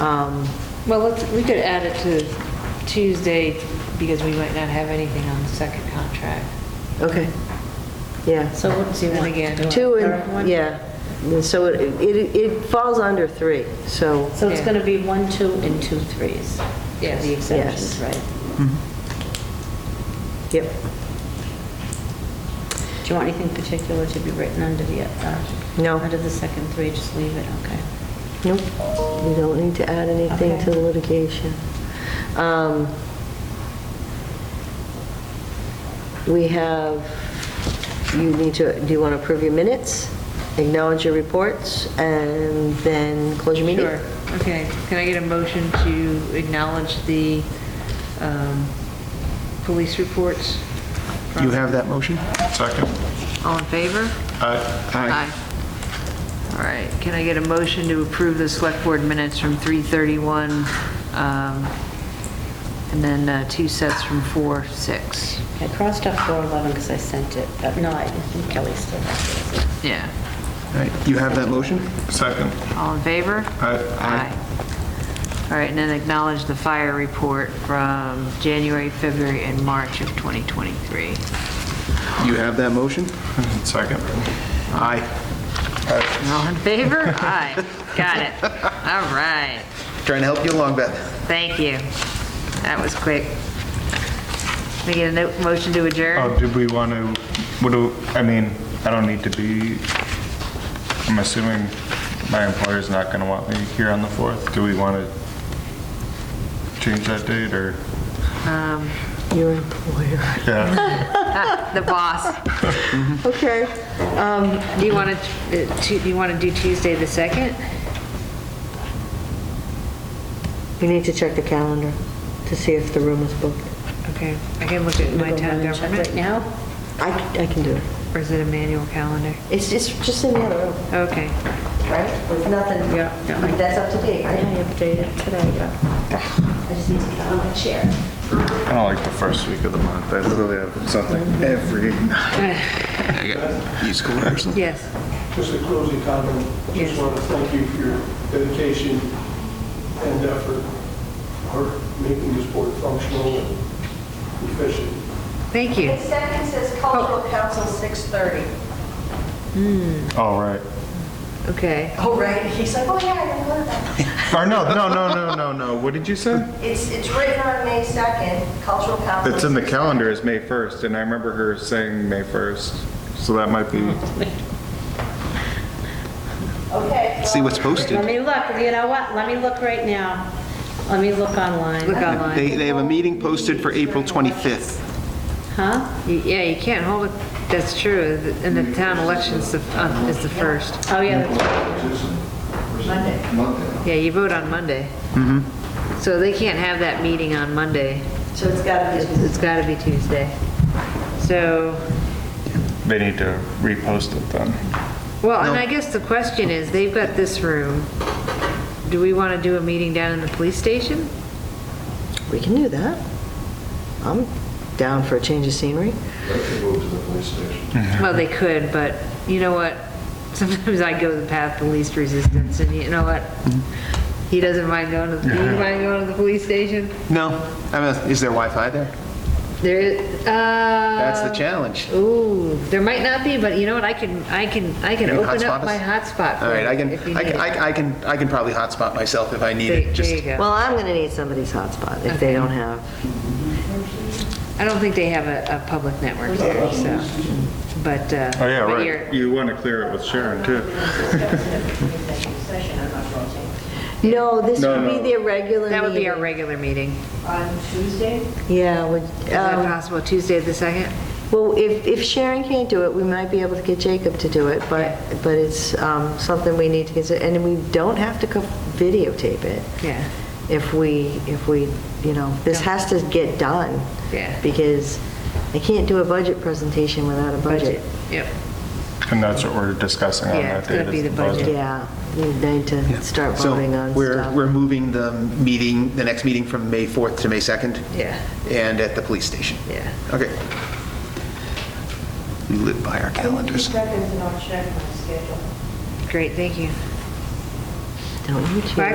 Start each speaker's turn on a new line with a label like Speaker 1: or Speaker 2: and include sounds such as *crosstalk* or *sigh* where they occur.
Speaker 1: Um,
Speaker 2: Well, let's, we could add it to Tuesday because we might not have anything on the second contract.
Speaker 1: Okay, yeah.
Speaker 3: So what does he
Speaker 2: Then
Speaker 3: want?
Speaker 2: again-
Speaker 3: Do a
Speaker 1: Two
Speaker 3: third one?
Speaker 1: and, yeah, so it, it it falls under three, so,
Speaker 3: So it's
Speaker 2: Yeah.
Speaker 3: going to be one, two, and two threes? Yeah,
Speaker 2: Yes.
Speaker 3: The
Speaker 1: Yes.
Speaker 3: exemptions, right?
Speaker 1: yep.
Speaker 3: Do you want anything particular to be written under the, uh,
Speaker 1: No.
Speaker 3: Under the second three, just leave it, okay.
Speaker 1: Nope, we don't need to add anything
Speaker 3: Okay.
Speaker 1: to the litigation. Um, We have, you need to, do you want to approve your minutes, acknowledge your reports, and then close your meeting?
Speaker 2: Sure, okay. Can I get a motion to acknowledge the um, police reports?
Speaker 4: You have that motion?
Speaker 5: Second.
Speaker 2: All in favor?
Speaker 5: Aye.
Speaker 2: All right, can I get a motion to approve the select board minutes from 3:31, um, and then uh, two sets from 4:06?
Speaker 3: I crossed out 411 because I sent it, but no, I think Kelly still has it.
Speaker 2: Yeah,
Speaker 4: All right, you have that motion?
Speaker 5: Second.
Speaker 2: all in favor?
Speaker 5: Aye.
Speaker 2: All right, and then acknowledge the fire report from January, February, and March of 2023.
Speaker 4: You have that motion?
Speaker 5: Second.
Speaker 4: Aye.
Speaker 2: All in favor?
Speaker 5: *laughs*
Speaker 2: Aye, got it. All right,
Speaker 4: Trying to help you along, Beth.
Speaker 2: thank you. That was quick. Can I get a no- motion to adjourn?
Speaker 5: Oh, did we want to, what do, I mean, I don't need to be, I'm assuming my employer's not going to want me here on the 4th. Do we want to change that date or?
Speaker 1: Your employer.
Speaker 5: Yeah,
Speaker 2: The boss,
Speaker 1: Okay,
Speaker 2: do you want to, do you want to do Tuesday the 2nd?
Speaker 1: we need to check the calendar to see if the room is booked.
Speaker 2: Okay, I can look at my
Speaker 3: Go
Speaker 2: town
Speaker 3: run and check Right
Speaker 2: government,
Speaker 3: now?
Speaker 1: I, c- I can do it.
Speaker 2: or is it a manual calendar?
Speaker 1: It's just, just in the other room,
Speaker 2: Okay,
Speaker 1: right? With nothing.
Speaker 3: Yeah, yeah.
Speaker 1: That's up to date,
Speaker 3: I
Speaker 1: right?
Speaker 3: updated today, yeah. I just need to get on my chair.
Speaker 5: I don't like the first week of the month. I literally have something every
Speaker 4: He's cool person.
Speaker 2: yes.
Speaker 6: Just a closing comment.
Speaker 2: Yes.
Speaker 6: Just want to thank you for your dedication and effort for making this board functional and efficient.
Speaker 2: Thank you.
Speaker 7: It second says cultural council 6:30.
Speaker 5: All Oh, right.
Speaker 2: Okay.
Speaker 7: Oh, right. He's like, oh, yeah, I didn't know that.
Speaker 5: Or no, no, no, no, no, no. What did you say?
Speaker 7: It's, it's written on May 2nd, cultural council.
Speaker 5: It's in the
Speaker 7: 6:30.
Speaker 5: calendar as May 1st, and I remember her saying May 1st. So that might be.
Speaker 7: Okay.
Speaker 4: *laughs* See
Speaker 7: well,
Speaker 4: what's posted.
Speaker 3: Let me look, you know what, let me look right now. Let me look online.
Speaker 2: Look online.
Speaker 4: They, they have a meeting posted for April 25th.
Speaker 3: Huh?
Speaker 2: Y- Yeah, you can't hold it, that's true, th- and the town election's the, uh, is the first.
Speaker 3: Oh, yeah, that's right.
Speaker 2: Yeah, you vote on Monday. So they can't have that meeting on Monday.
Speaker 7: So it's got to be.
Speaker 2: It's gotta be Tuesday. So,
Speaker 5: They need to repost it then.
Speaker 2: well, and I guess the question is, they've got this room. Do we wanna do a meeting down in the police station?
Speaker 1: We can do that. I'm down for a change of scenery.
Speaker 2: Well, they could, but you know what? *laughs* Sometimes I go the path of least resistance, and you know what? He doesn't mind going to, do you mind going to the police station?
Speaker 4: No, I mean, is there Wi-Fi there?
Speaker 2: There is, uh.
Speaker 4: That's the challenge.
Speaker 2: Ooh, there might not be, but you know what, I can, I can, I can
Speaker 4: You can
Speaker 2: open up
Speaker 4: hotspot us?
Speaker 2: my hotspot.
Speaker 4: All right, I can,
Speaker 2: if you
Speaker 4: I
Speaker 2: need
Speaker 4: can,
Speaker 2: it.
Speaker 4: I I can, I can probably hotspot myself if I need
Speaker 2: There
Speaker 4: it,
Speaker 2: there
Speaker 4: just.
Speaker 2: you go.
Speaker 1: Well, I'm going to need somebody's hotspot if they don't have.
Speaker 2: I don't think they have a, a public network there, so, but, uh.
Speaker 5: Oh, yeah,
Speaker 2: but you're-
Speaker 5: right. You want to clear it with Sharon, too.
Speaker 7: Session, I'm not going to take.
Speaker 1: No, this would
Speaker 5: No, no.
Speaker 1: be the regular
Speaker 2: That would be our
Speaker 1: meeting.
Speaker 2: regular meeting.
Speaker 7: On Tuesday?
Speaker 1: Yeah, would,
Speaker 2: Is that
Speaker 1: um,
Speaker 2: possible, Tuesday the second?
Speaker 1: well, if, if Sharon can't do it, we might be able to get Jacob to do it, but, but it's um, something we need to consider, and we don't have to co- videotape it.
Speaker 2: Yeah.
Speaker 1: If we, if we, you know, this
Speaker 2: Yeah.
Speaker 1: has to get done.
Speaker 2: Yeah.
Speaker 1: Because I can't do a budget presentation without a budget.
Speaker 2: Yep.
Speaker 5: And that's what we're discussing on
Speaker 2: Yeah,
Speaker 5: that
Speaker 2: it's
Speaker 5: date.
Speaker 2: gonna be
Speaker 5: is
Speaker 2: the budget.
Speaker 1: Yeah, we need to start
Speaker 4: So
Speaker 1: voting on
Speaker 4: we're,
Speaker 1: stuff.
Speaker 4: we're moving the meeting, the next meeting from May 4th to May 2nd?
Speaker 2: Yeah.
Speaker 4: And at the police station?
Speaker 2: Yeah.
Speaker 4: Okay. We live by our calendars.
Speaker 7: Seconds, and I'll check my schedule.
Speaker 2: Great, thank you.
Speaker 1: Don't you two?
Speaker 2: Well,